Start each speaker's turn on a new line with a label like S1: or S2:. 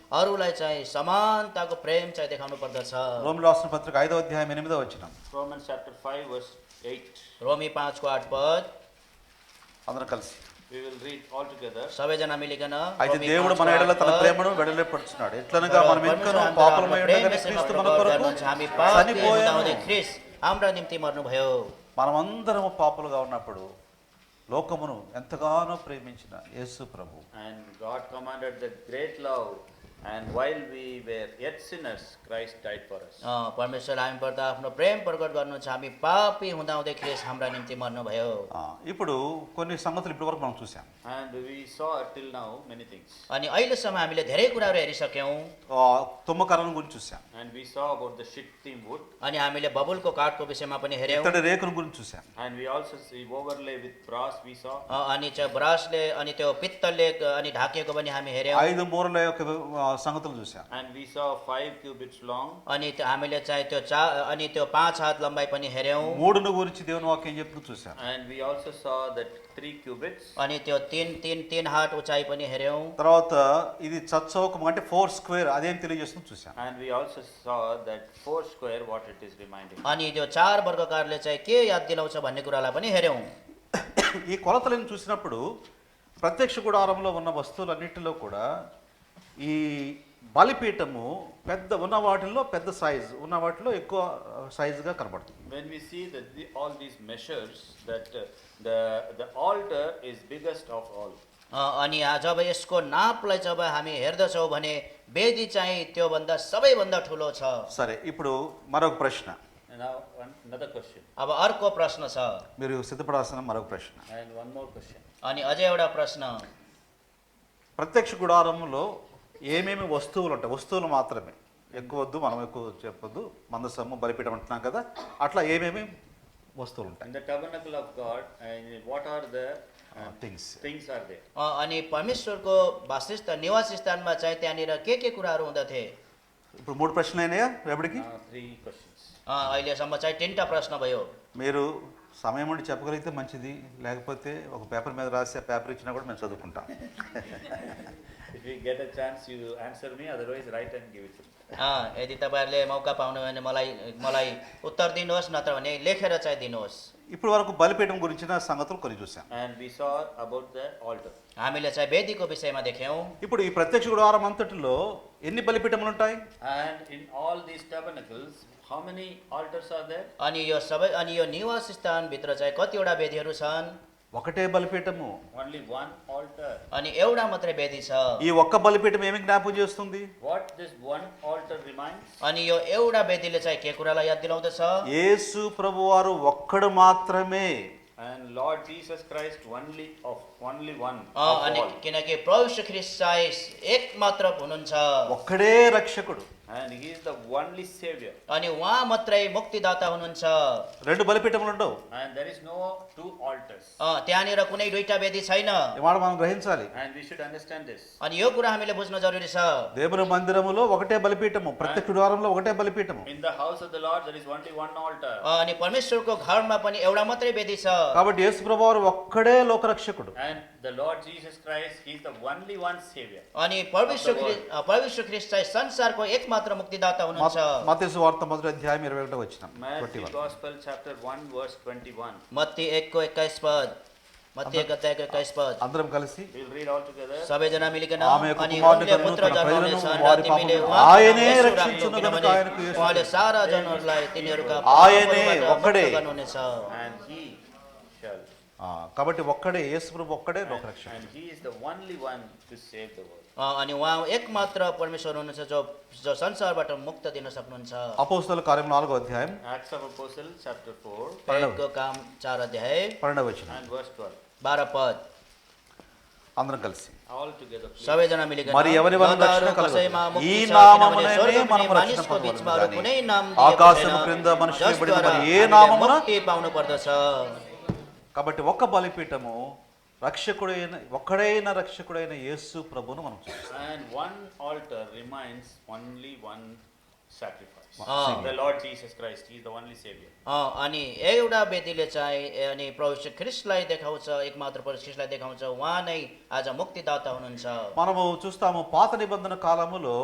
S1: अरूलाई चाहिँ समानताको प्रेम चाहिँ देखाउनु पर्दछ
S2: రోమిల రాసిన పత్రిక ఐదో అధ్యాయం ఎనిమిదో వచ్చిన
S3: Romans chapter 5, verse 8.
S1: रोमी पाँचको आठ पद
S2: అందరం కలిసి
S3: We will read all together.
S1: सबैजना मिलिकन
S2: అయితే
S1: रोमी
S2: దేవుడు
S1: पाँचको
S2: మన ఎడల
S1: आठ
S2: తన
S1: पद,
S2: ప్రేమను వెడలేపడుచున్నాడు ఎట్లనగా
S1: तर
S2: మనం
S1: परमेश्वर
S2: ఇంకనూ
S1: हाम्रो
S2: పాపలమై
S1: हाम्रो
S2: ఉండగానే
S1: प्रेमले
S2: క్రీస్తు మన
S1: प्रभाव
S2: కొరకు
S1: गर्नुहुन्छ। हामी पापी
S2: చనిపోయాను
S1: हुँदाहुँदै ख्रिस्ट हाम्रा निम्ति मर्नुभयो
S2: మనమందరము పాపలుగా ఉన్నప్పుడు లోకమును ఎంతగానో ప్రేమించిన యేసు ప్రభు
S3: And God commanded that great love, and while we were yet sinners, Christ died for us.
S1: अँ, परमेश्वर हामी पर्दा आफ्नो प्रेम प्रकट गर्नुहुन्छ हामी पापी हुँदाहुँदै ख्रिस्ट हाम्रा निम्ति मर्नुभयो
S2: ఆ, ఇప్పుడు కొన్ని సంగతులు ఇప్పటి వరకు మనం చూసాం
S3: And we saw till now many things.
S1: अनि अहिलेसम्म हामीले धेरै कुराहरू हेरिसक्यौँ
S2: ఆ, తుమ్మకరణం గురించి చూసాం
S3: And we saw about the shittim wood,
S1: अनि हामीले बबुलको काठको विषयमा पनि हेऱ्यौँ
S2: ఇత్తడి రేకును గురించి చూసాం
S3: and we also see overlay with brass, we saw.
S1: अ, अनि चाहिँ ब्रसले अनि त्यो पित्तलले अ, अनि ढाकिएको पनि हामी हेऱ्यौँ
S2: ఐదు మూరల యొక్క ఆ, సంగతులు చూసాం
S3: And we saw five cubits long,
S1: अनि त्यो हामीले चाहिँ त्यो चा अनि त्यो पाँच हात लम्बाइ पनि हेऱ्यौँ
S2: మూడును గురించి దేవుని వాక్యం చెప్తూ చూసాం
S3: and we also saw that three cubits,
S1: अनि त्यो तिन तिन तिन हात उचाइ पनि हेऱ्यौँ
S2: తర్వాత ఇది చచ్చౌకం అంటే ఫోర్ స్క్వేర్ అదేం తెలియజేస్తుంది చూసాం
S3: and we also saw that four square what it is reminding.
S1: अनि त्यो चार वर्गकारले चाहिँ के याद दिलाउँछ भन्ने कुरालाई पनि हेऱ्यौँ
S2: ఈ కొలతలను చూసినప్పుడు ప్రత్యక్ష గుడారంలో ఉన్న వస్తువులన్నిటిలో కూడా ఈ బలిపీఠము పెద్ద ఉన్న వాటిల్లో పెద్ద సైజ్ ఉన్న వాటిలో ఎక్కువ సైజుగా కనబడుతుంది
S3: When we see that the, all these measures, that uh, the, the altar is biggest of all.
S1: अ, अनि आ- जब यसको नापलाई जब हामी हेर्दछौँ भने वेदी चाहिँ त्योभन्दा सबैभन्दा ठुलो छ
S2: సరే ఇప్పుడు మరొక ప్రశ్న
S3: And now, one, another question,
S1: अब अर्को ప్రశ్न छ
S2: మీరు సిద్ధపడాల్సిన మరొక ప్రశ్న
S3: and one more question.
S1: अनि अझै एउटा ప్రశ్न
S2: ప్రత్యక్ష గుడారంలో ఏమేమి వస్తువులు ఉంటాయి వస్తువులు మాత్రమే ఎక్కువ వద్దు మనం ఎక్కువ చెప్పొద్దు మందసము బలిపీఠం అంటున్నాం కదా అట్లా ఏమేమి వస్తువులు ఉంటాయి
S3: In the tabernacle of God, and what are the uh,
S2: things
S3: things are there?
S1: अ, अनि परमेश्वरको वासिष्ठ निवास स्थानमा चाहिँ त्यहाँनिर के के कुराहरू हुँदथे
S2: ఇప్పుడు మూడు ప్రశ్నలు అయినాయా రేపటికి
S3: Now, Uh, three questions.
S1: अ, अहिलेसम्म चाहिँ तिनवटा प्रश्न भयो
S2: మీరు సమయం ఉండి చెప్పగలిగితే మంచిది లేకపోతే ఒక పేపర్ మీద రాసి ఆ పేపర్ ఇచ్చినా కూడా మేము చదువుకుంటాం
S3: If you get a chance, you answer me, otherwise write and give it to me.
S1: अ, यदि तपाईँहरूले मौका पाउनुभयो भने मलाई मलाई उत्तर दिनुहोस् नत्र भने लेखेर चाहिँ दिनुहोस्
S2: ఇప్పుడు వరకు బలిపీఠం గురించిన సంగతులు కొన్ని చూసాం
S3: And we saw about the altar.
S1: हामीले चाहिँ वेदीको విषयमा देख्यौँ
S2: ఇప్పుడు ఈ ప్రత్యక్ష గుడారం అంతటిలో ఎన్ని బలిపీఠములు ఉంటాయి
S3: And in all these tabernacles, how many altars are there?
S1: अनि यो सबै अनि यो निवास स्थानभित्र चाहिँ कतिवटा वेदीहरू छन्
S2: ఒకటే బలిపీఠము
S3: Only one altar.
S1: अनि एउटा मात्रै वेदी छ
S2: ఈ ఒక్క బలిపీఠం ఏమి జ్ఞాపకం చేస్తుంది
S3: What this one altar reminds?
S1: अनि यो एउटा वेदीले चाहिँ के कुरालाई याद दिलाउँदछ
S2: యేసు ప్రభువారు ఒక్కడు మాత్రమే
S3: And Lord Jesus Christ only of only one
S1: a,
S3: of
S1: अनि
S3: all.
S1: किनकि प्रभु ख्रिस्ट चाहिँ एक मात्र हुनुहुन्छ
S2: ఒక్కడే రక్షకుడు
S3: And he is the only savior.
S1: अनि उहाँ मात्रै मुक्तिदाता हुनुहुन्छ
S2: రెండు బలిపీఠములు ఉండవు
S3: And there is no two altars.
S1: अ, त्यहाँनिर कुनै दुईटा वेदी छैन
S2: ఇవాళ మనం గ్రహించాలి
S3: And we should understand this.
S1: अनि यो कुरा हामीले बुझ्न जरुरी छ
S2: దేవుని మందిరములో ఒకటే బలిపీఠము ప్రత్యక్ష గుడారంలో ఒకటే బలిపీఠము
S3: In the house of the Lord there is only one altar.
S1: अ, अनि परमेश्वरको घरमा पनि एउटा मात्रै वेदी छ
S2: కాబట్టి యేసు ప్రభువారు ఒక్కడే లోకరక్షకుడు
S3: And the Lord Jesus Christ, he is the only one savior.
S1: अनि परमेश्वर ख्रिस्ट अ, परमेश्वर ख्रिस्ट चाहिँ संसारको एकमात्र मुक्तिदाता हुनुहुन्छ
S2: మతేసు వార్త మొదటి అధ్యాయం ఇరవై ఒకటో వచ్చిన
S3: Matthew Gospel chapter 1 verse 21.
S1: मत्ती एकको एक्काइस पद मत्ती एक अध्यायको एक्काइस पद
S2: అందరం కలిసి
S3: We'll read all together.
S1: सबैजना मिलिकन
S2: ఆమె యొక్క
S1: अनि
S2: కుమారుని
S1: उनले
S2: కనును
S1: पुत्र
S2: తన
S1: जन्माउने
S2: ప్రజలను
S1: छन् र
S2: వారి
S1: तिमीले
S2: పాపములను
S1: उहाँको नाम
S2: ఆయనే
S1: येशू राख्नु,
S2: రక్షించును
S1: किनभने
S2: గనుక ఆయనకు యేసు
S1: उहाँले सारा जनहरूलाई तिनीहरूका
S2: ఆయనే
S1: पापहरूबाट मुक्त
S2: ఒక్కడే.
S1: गर्नुहुनेछ
S3: And he shall.
S2: ఆ, కాబట్టి ఒక్కడే యేసు ప్రభు ఒక్కడే
S3: And,
S2: లోకరక్షకుడు
S3: and he is the only one to save the world.
S1: अ, अनि उहाँ एकमात्र परमेश्वर हुनुहुन्छ जो जो संसारबाट मुक्त दिन सक्नुहुन्छ
S2: అపోస్తుల కార్యం నాలుగో అధ్యాయం
S3: Acts of Apostles chapter 4
S1: प्रेरितको काम चार अध्याय
S2: పన్నెండవ వచ్చిన
S3: and verse 12.
S1: बाह्र पद
S2: అందరం కలిసి
S3: All together please.
S1: सबैजना मिलिकन
S2: మరి ఎవరి వలన
S1: योद्धाहरू
S2: రక్షణ కలుగును?
S1: कसैमा मुक्ति
S2: ఈ
S1: छ,
S2: నామముననే
S1: किनभने स्वर्गमुनि
S2: మనము రక్షణ
S1: मानिसको
S2: పొందవలెను
S1: बीचमा अरू
S2: గాని
S1: कुनै नाम
S2: ఆకాశము
S1: दिएको
S2: క్రింద
S1: छैन,
S2: మనుషులకు
S1: जसद्वारा
S2: ఇవ్వబడిన మరి ఏ
S1: हामीले
S2: నామమున
S1: ముక్ति पाउनुपर्दछ
S2: కాబట్టి ఒక్క బలిపీఠము రక్షకుడైన ఒక్కడైన రక్షకుడైన యేసు ప్రభువును మనం చూస్తాం
S3: And one altar reminds only one sacrifice.
S1: Ah.
S3: The Lord Jesus Christ, He is the only Savior.
S1: अँ, अनि एउटा व्यक्तिले चाहिँ ए, अनि प्रभु श्री ख्रिस्टलाई देखाउँछ एकमात्र प्रभु ख्रिस्टलाई देखाउँछ उहाँ नै आज मुक्तिदाता हुनुहुन्छ
S2: మనము చూస్తాము పాత నిబంధన కాలములో